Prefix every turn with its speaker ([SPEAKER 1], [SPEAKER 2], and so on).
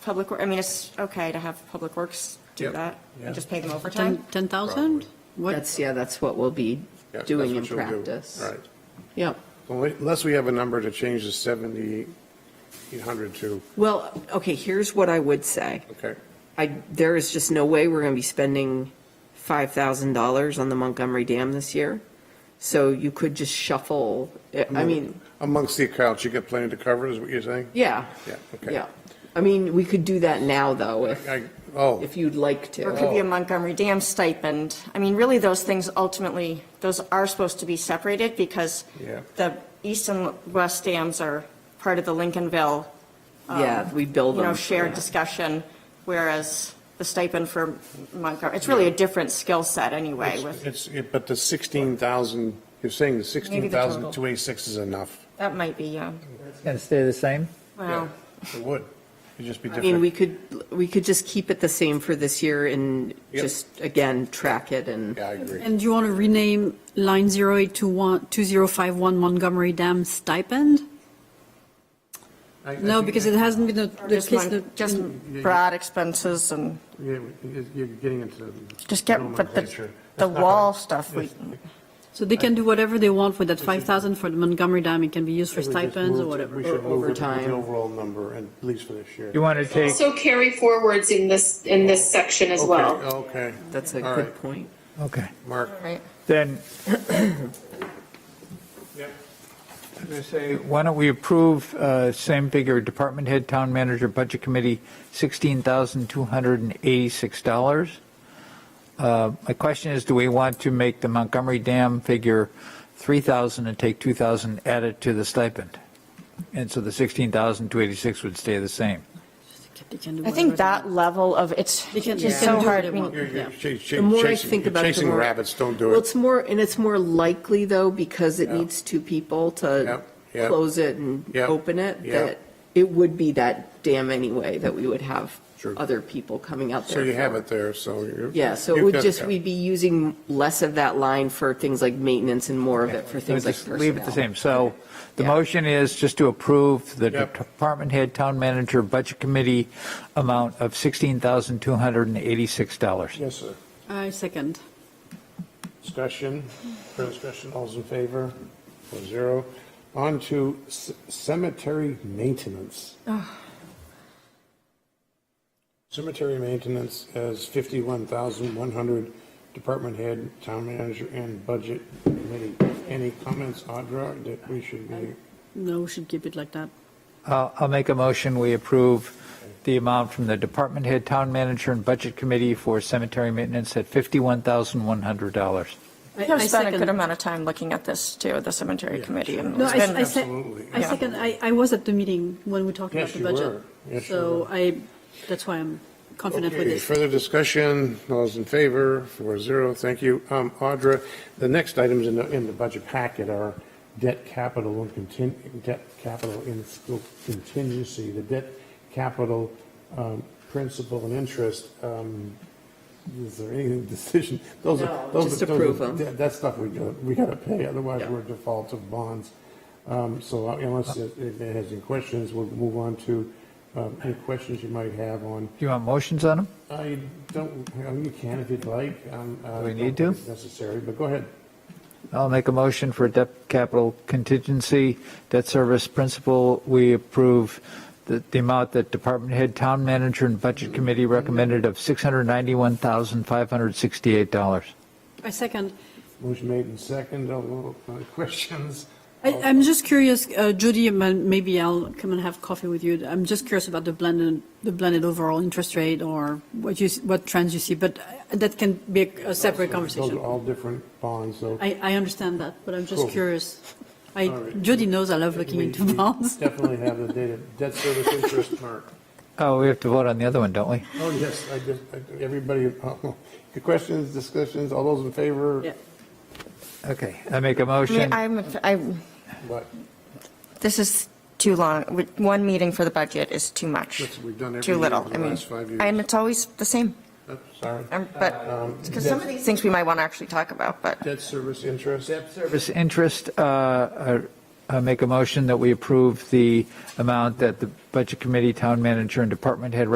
[SPEAKER 1] Public, Wor- I mean, it's okay to have Public Works do
[SPEAKER 2] Yep.
[SPEAKER 1] that and just pay them overtime.
[SPEAKER 3] Ten- 10,000? What,
[SPEAKER 4] That's, yeah, that's what we'll be
[SPEAKER 2] Yeah, that's
[SPEAKER 4] doing in
[SPEAKER 2] what you'll do.
[SPEAKER 4] practice.
[SPEAKER 2] Right.
[SPEAKER 4] Yep.
[SPEAKER 2] Well, Unless we have a number to change the 7,800 to,
[SPEAKER 4] Well, okay, here's what I would say.
[SPEAKER 2] okay,
[SPEAKER 4] I, there is just no way we're going to be spending $5,000 on the Montgomery Dam this year. So you could just shuffle, I mean,
[SPEAKER 2] amongst the accounts, you got plenty to cover, is what you're saying?
[SPEAKER 4] yeah.
[SPEAKER 2] Yeah, okay.
[SPEAKER 4] Yeah. I mean, we could do that now, though, if,
[SPEAKER 2] I, oh,
[SPEAKER 4] if you'd like
[SPEAKER 1] Or it
[SPEAKER 4] to.
[SPEAKER 1] could be a Montgomery Dam stipend. I mean, really, those things ultimately, those are supposed to be separated because
[SPEAKER 2] Yeah.
[SPEAKER 1] the east and west dams are part of the Lincolnville, um,
[SPEAKER 4] Yeah, we build
[SPEAKER 1] you
[SPEAKER 4] them.
[SPEAKER 1] know, shared discussion, whereas the stipend for Montgomery, it's really a different skill set anyway with,
[SPEAKER 2] it's, it- but the 16,000, you're saying the 16,286 is enough?
[SPEAKER 1] that might be, um,
[SPEAKER 5] Going to stay the same?
[SPEAKER 1] well,
[SPEAKER 2] Yeah, It would. It'd just be
[SPEAKER 4] I
[SPEAKER 2] different.
[SPEAKER 4] mean, we could, we could just keep it the same for this year and
[SPEAKER 2] Yep.
[SPEAKER 4] just, again, track it and.
[SPEAKER 2] Yeah, I agree.
[SPEAKER 3] and you want to rename line 08 to one- 2051 Montgomery Dam stipend?
[SPEAKER 2] I- I
[SPEAKER 3] No,
[SPEAKER 2] think-
[SPEAKER 3] because it hasn't been the the
[SPEAKER 1] just,
[SPEAKER 3] case.
[SPEAKER 1] mon-
[SPEAKER 3] that-
[SPEAKER 1] just broad expenses and
[SPEAKER 2] Yeah, you- You're getting into.
[SPEAKER 1] just get, but the,
[SPEAKER 2] nomenclature.
[SPEAKER 1] the
[SPEAKER 2] That's not
[SPEAKER 1] wall
[SPEAKER 2] right.
[SPEAKER 1] stuff, we,
[SPEAKER 3] So they can do whatever they want with that 5,000 for the Montgomery Dam, it can be used for
[SPEAKER 2] We just
[SPEAKER 3] stipends or
[SPEAKER 2] moved- We
[SPEAKER 3] whatever.
[SPEAKER 2] should move it to
[SPEAKER 4] overtime.
[SPEAKER 2] the overall number, and at least for this year.
[SPEAKER 5] You want to take,
[SPEAKER 6] Also carry forwards in this, in this section as
[SPEAKER 2] Okay,
[SPEAKER 6] well.
[SPEAKER 2] Okay.
[SPEAKER 4] That's a
[SPEAKER 2] All
[SPEAKER 4] good
[SPEAKER 2] right,
[SPEAKER 4] point.
[SPEAKER 5] okay,
[SPEAKER 2] Mark.
[SPEAKER 1] right?
[SPEAKER 5] then. I'm gonna say, Why don't we approve, uh, same figure, department head, town manager, budget committee, $16,286? Uh, My question is, do we want to make the Montgomery Dam figure 3,000 and take 2,000 added to the stipend? And so the 16,286 would stay the same.
[SPEAKER 3] They can do
[SPEAKER 1] I
[SPEAKER 3] whatever
[SPEAKER 1] think
[SPEAKER 3] they
[SPEAKER 1] that
[SPEAKER 3] want.
[SPEAKER 1] level of, it's
[SPEAKER 3] They can-
[SPEAKER 1] it's
[SPEAKER 3] they
[SPEAKER 1] just
[SPEAKER 3] can
[SPEAKER 1] so
[SPEAKER 3] do
[SPEAKER 1] hard. I
[SPEAKER 3] whatever they
[SPEAKER 1] mean,
[SPEAKER 3] want.
[SPEAKER 2] You're, you're
[SPEAKER 3] Yeah.
[SPEAKER 2] cha- cha-
[SPEAKER 4] The more I
[SPEAKER 2] chasing-
[SPEAKER 4] think
[SPEAKER 2] you're
[SPEAKER 4] about it, the
[SPEAKER 2] chasing
[SPEAKER 4] more-
[SPEAKER 2] rabbits, don't do
[SPEAKER 4] Well,
[SPEAKER 2] it.
[SPEAKER 4] it's more, and it's more likely, though, because it
[SPEAKER 2] Yeah.
[SPEAKER 4] needs two people to
[SPEAKER 2] Yep, yep.
[SPEAKER 4] close it and
[SPEAKER 2] Yep,
[SPEAKER 4] open it,
[SPEAKER 2] yep.
[SPEAKER 4] that it would be that dam anyway, that we would have
[SPEAKER 2] Sure.
[SPEAKER 4] other people coming out there.
[SPEAKER 2] So you
[SPEAKER 4] for.
[SPEAKER 2] have it there, so you're.
[SPEAKER 4] Yeah, so it
[SPEAKER 2] you've
[SPEAKER 4] would
[SPEAKER 2] got-
[SPEAKER 4] just, we'd be using less of that line for things like maintenance and more of it for things like
[SPEAKER 5] Just
[SPEAKER 4] personnel.
[SPEAKER 5] Leave it the same. So the
[SPEAKER 4] Yeah.
[SPEAKER 5] motion is just to approve the
[SPEAKER 2] Yep.
[SPEAKER 5] department head, town manager, budget committee amount of $16,286.
[SPEAKER 2] Yes, sir.
[SPEAKER 3] I second.
[SPEAKER 2] Discussion, further discussion, all's in favor, four zero. On to c- cemetery maintenance.
[SPEAKER 4] Ah.
[SPEAKER 2] Cemetery maintenance has fifty-one thousand one hundred, department head, town manager, and budget committee. Any comments, Audra, that we should be?
[SPEAKER 3] No, we should keep it like that.
[SPEAKER 5] Uh, I'll make a motion, we approve the amount from the department head, town manager, and budget committee for cemetery maintenance at $51,100.
[SPEAKER 3] I- I
[SPEAKER 1] I've spent a
[SPEAKER 3] second.
[SPEAKER 1] good amount of time looking at this too, the cemetery committee. and
[SPEAKER 3] No,
[SPEAKER 1] it's
[SPEAKER 3] I,
[SPEAKER 1] been-
[SPEAKER 3] I sec-
[SPEAKER 2] Absolutely.
[SPEAKER 3] I
[SPEAKER 2] Yeah.
[SPEAKER 3] second, I, I was at the meeting when we talked about
[SPEAKER 2] Yes,
[SPEAKER 3] the
[SPEAKER 2] you
[SPEAKER 3] budget.
[SPEAKER 2] were. Yes, you
[SPEAKER 3] So
[SPEAKER 2] were.
[SPEAKER 3] I, that's why I'm confident with
[SPEAKER 2] Okay,
[SPEAKER 3] this.
[SPEAKER 2] Further discussion, all's in favor, four zero, thank you. Um, Audra, the next items in the, in the budget packet are debt capital and contin, debt capital in scope contingency, the debt capital, um, principal and interest, um, is there any decision? Those are-
[SPEAKER 4] No,
[SPEAKER 2] those are-
[SPEAKER 4] just
[SPEAKER 2] those are-
[SPEAKER 4] approve 'em.
[SPEAKER 2] that- That stuff we gotta, we gotta pay, otherwise
[SPEAKER 4] Yeah. Uh.
[SPEAKER 2] we're default of bonds. Um, so unless it it has any questions, we'll move on to, um, any questions you might have on
[SPEAKER 5] Do you want motions on them?
[SPEAKER 2] I don't, um, you can if you'd like. um, uh, I
[SPEAKER 5] Do we
[SPEAKER 2] don't think
[SPEAKER 5] need to?
[SPEAKER 2] it's Necessary, but go ahead.
[SPEAKER 5] I'll make a motion for debt capital contingency, debt service principal. We approve the, the amount that department head, town manager, and budget committee recommended of $691,568.
[SPEAKER 3] I second.
[SPEAKER 2] Motion made and second. All, uh, Questions?
[SPEAKER 3] I, I'm just curious, uh, Judy, and then maybe I'll come and have coffee with you. I'm just curious about the blended, the blended overall interest rate or what you, s- what trends you see, but uh, that can be a- a separate
[SPEAKER 2] Those
[SPEAKER 3] conversation.
[SPEAKER 2] are all different bonds, so.
[SPEAKER 3] I, I understand that, but I'm just
[SPEAKER 2] Cool.
[SPEAKER 3] curious. I,
[SPEAKER 2] All right.
[SPEAKER 3] Judy knows I love looking
[SPEAKER 2] we-
[SPEAKER 3] into
[SPEAKER 2] we
[SPEAKER 3] bonds.
[SPEAKER 2] Definitely have the data, debt service interest mark.
[SPEAKER 5] Oh, we have to vote on the other one, don't we?
[SPEAKER 2] Oh, yes, I just, I- everybody, uh, questions, discussions, all those in favor?
[SPEAKER 3] Yeah.
[SPEAKER 5] Okay, I make a
[SPEAKER 1] I mean,
[SPEAKER 5] motion.
[SPEAKER 1] I'm, I,
[SPEAKER 2] But
[SPEAKER 1] this is too long. With- One meeting for the budget is too much.
[SPEAKER 2] That's what we've done every
[SPEAKER 1] Too
[SPEAKER 2] year
[SPEAKER 1] little.
[SPEAKER 2] for the
[SPEAKER 1] I mean,
[SPEAKER 2] last five years.
[SPEAKER 1] And it's always the same,
[SPEAKER 2] uh, Sorry.
[SPEAKER 1] Um, but, because some of
[SPEAKER 2] debt-
[SPEAKER 1] these things we might want to actually talk about, but
[SPEAKER 2] Debt service interest.
[SPEAKER 5] Service interest, uh, uh, I make a motion that we approve the amount that the budget committee, town manager, and department head